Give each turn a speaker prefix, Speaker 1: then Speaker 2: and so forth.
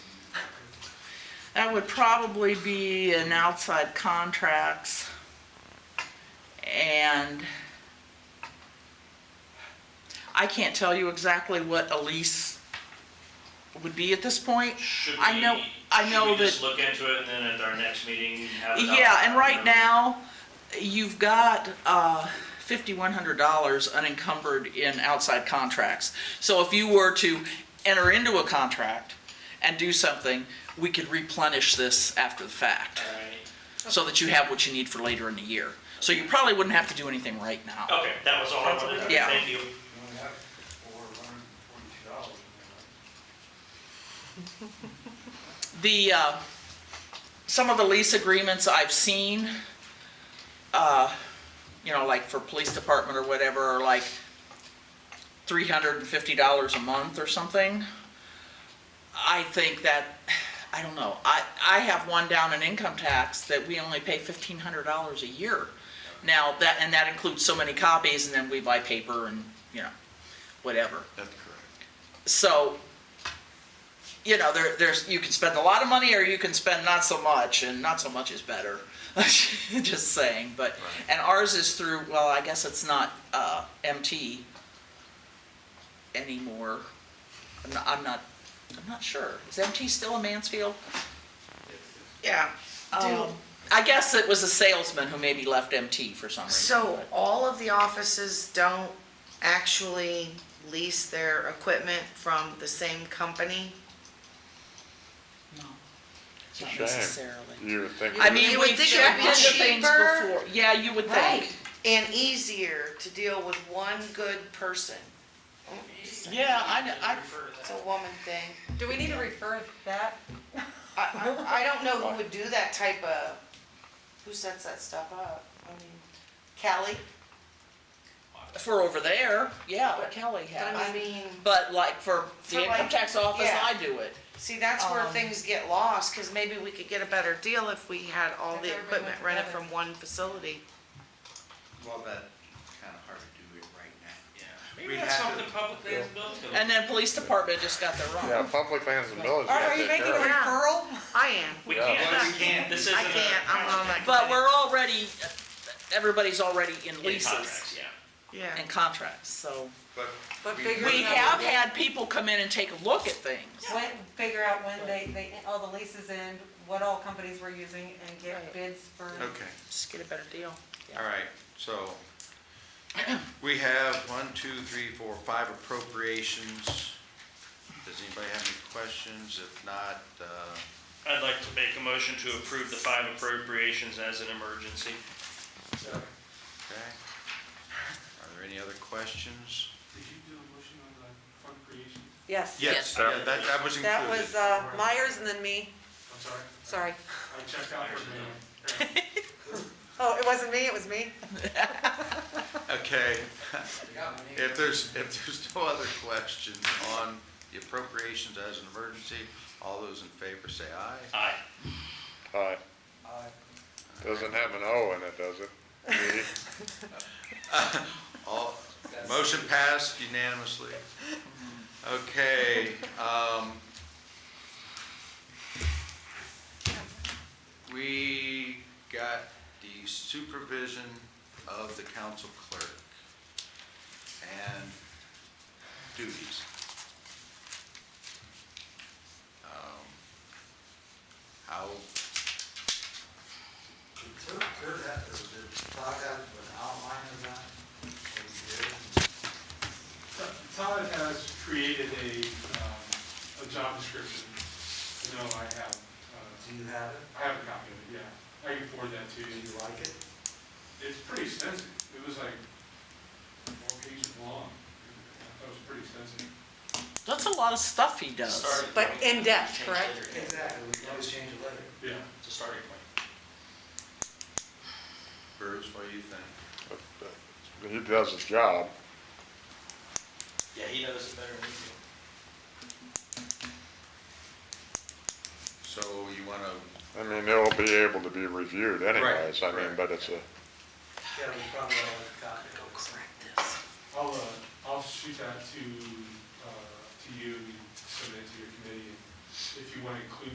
Speaker 1: that would probably be in outside contracts. And I can't tell you exactly what a lease would be at this point.
Speaker 2: Should
Speaker 1: I know-
Speaker 2: we-
Speaker 1: I know
Speaker 2: Should we just
Speaker 1: that-
Speaker 2: look into it and then at our next meeting have it? up?
Speaker 1: Yeah, and right
Speaker 2: Um,
Speaker 1: now, you've got uh, $5,100 unencumbered in outside contracts. So if you were to enter into a contract and do something, we could replenish this after the fact,
Speaker 2: all right.
Speaker 1: so that you have what you need for later in the year. So you probably wouldn't have to do anything right now.
Speaker 2: Okay, that was all I wanted to do.
Speaker 1: Yeah.
Speaker 2: Thank you.
Speaker 3: You only have four hundred and forty-two dollars in there, right?
Speaker 1: The, uh, some of the lease agreements I've seen, uh, you know, like for police department or whatever, are like three hundred and fifty dollars a month or something. I think that, I don't know, I, I have one down in income tax that we only pay fifteen hundred dollars a year. Now, that, and that includes so many copies, and then we buy paper and, you know, whatever.
Speaker 4: That's correct.
Speaker 1: So, you know, there, there's, you can spend a lot of money or you can spend not so much, and not so much is better. Just saying, but,
Speaker 4: Right.
Speaker 1: and ours is through, well, I guess it's not, uh, MT anymore. I'm not, I'm not, I'm not sure. Is MT still in Mansfield? Yeah. Um,
Speaker 5: Do-
Speaker 1: I guess it was a salesman who maybe left MT for some reason.
Speaker 5: So
Speaker 1: but-
Speaker 5: all of the offices don't actually lease their equipment from the same company?
Speaker 1: No,
Speaker 6: a
Speaker 1: not
Speaker 6: shame.
Speaker 1: necessarily.
Speaker 6: You would think.
Speaker 1: I mean,
Speaker 5: You would
Speaker 1: we've
Speaker 5: think it
Speaker 1: checked
Speaker 5: would be
Speaker 1: into things
Speaker 5: cheaper.
Speaker 1: before. Yeah, you would think.
Speaker 5: And easier to deal with one good person.
Speaker 1: Yeah, I know, I,
Speaker 5: It's a woman thing.
Speaker 7: Do we need to refer that?
Speaker 5: I, I, I don't know who would do that type of, who sets that stuff up? I mean, Callie?
Speaker 1: for over there, yeah, but Kelly
Speaker 5: I
Speaker 1: has.
Speaker 5: mean,
Speaker 1: But like for the
Speaker 5: For
Speaker 1: income
Speaker 5: like-
Speaker 1: tax office,
Speaker 5: yeah.
Speaker 1: I do it.
Speaker 5: see, that's where
Speaker 1: Um,
Speaker 5: things get lost, cause maybe we could get a better deal if we had all
Speaker 7: If
Speaker 5: the
Speaker 7: everybody went
Speaker 5: equipment rented
Speaker 7: together.
Speaker 5: from one facility.
Speaker 4: Well, that's kind of hard to do it right now.
Speaker 2: Yeah.
Speaker 4: We'd
Speaker 2: Maybe that's
Speaker 4: have to-
Speaker 2: something public they built. to.
Speaker 1: And then police department just got their
Speaker 6: Yeah,
Speaker 1: own.
Speaker 6: public lands and villages.
Speaker 7: Are are you making a
Speaker 5: Yeah.
Speaker 7: referral?
Speaker 5: I am.
Speaker 2: We
Speaker 6: Yeah.
Speaker 4: Well,
Speaker 2: can't,
Speaker 4: we can't.
Speaker 2: this isn't a.
Speaker 5: I can't, I'm on that.
Speaker 1: But
Speaker 5: committee.
Speaker 1: we're already, everybody's already in
Speaker 2: In contracts,
Speaker 1: leases
Speaker 2: yeah.
Speaker 5: Yeah.
Speaker 1: and contracts, so.
Speaker 4: But
Speaker 7: But
Speaker 4: We-
Speaker 7: figure
Speaker 1: We
Speaker 7: out-
Speaker 1: have had people come in and take a look at things.
Speaker 7: When, figure out when they, they, all the leases end, what all companies were using and
Speaker 1: Right.
Speaker 7: get bids for.
Speaker 4: Okay,
Speaker 1: Just get a better deal.
Speaker 4: all right, so we have one, two, three, four, five appropriations. Does anybody have any questions? If not, uh,
Speaker 2: I'd like to make a motion to approve the five appropriations as an emergency.
Speaker 4: okay. Are there any other questions?
Speaker 8: Did you do a motion on the fund creation?
Speaker 7: Yes.
Speaker 1: Yes.
Speaker 4: Yeah, That, that was
Speaker 7: That was
Speaker 4: included.
Speaker 7: uh, Myers and then me,
Speaker 8: I'm sorry,
Speaker 7: sorry.
Speaker 8: I checked out for a minute.
Speaker 7: Oh, it wasn't me, it was me?
Speaker 4: Okay. If there's, if there's no other questions on the appropriations as an emergency, all those in favor say aye.
Speaker 2: Aye.
Speaker 6: Aye.
Speaker 3: Aye.
Speaker 6: Doesn't have an O in it, does it? Me?
Speaker 4: All, motion passed unanimously. Okay, um, we got the supervision of the council clerk and duties. Um, How,
Speaker 3: Could, could that, or did Todd have an outline of that? Or he did?
Speaker 8: Todd has created a, um, a job description. You know, I have, uh,
Speaker 3: Do you have it?
Speaker 8: I have a copy of it, yeah. I can forward that to
Speaker 3: Do
Speaker 8: you.
Speaker 3: you like it?
Speaker 8: It's pretty extensive. It was like four pages long. That was pretty extensive.
Speaker 1: That's a lot of stuff he does.
Speaker 2: Starting
Speaker 7: But
Speaker 2: point.
Speaker 7: in depth,
Speaker 2: Change
Speaker 7: correct?
Speaker 2: later.
Speaker 3: Exactly, we can always change it later.
Speaker 8: Yeah.
Speaker 2: It's a starting point.
Speaker 4: Bruce, what do you think?
Speaker 6: He does his job.
Speaker 2: Yeah, he knows it better than we do.
Speaker 4: So you wanna
Speaker 6: I mean, it will be able to be reviewed anyways. I mean,
Speaker 4: right.
Speaker 6: but it's a,
Speaker 3: Yeah, we probably all have a copy. Go
Speaker 8: I'll, uh, I'll shoot that to, uh, to you, and submit it to your committee. If you want to include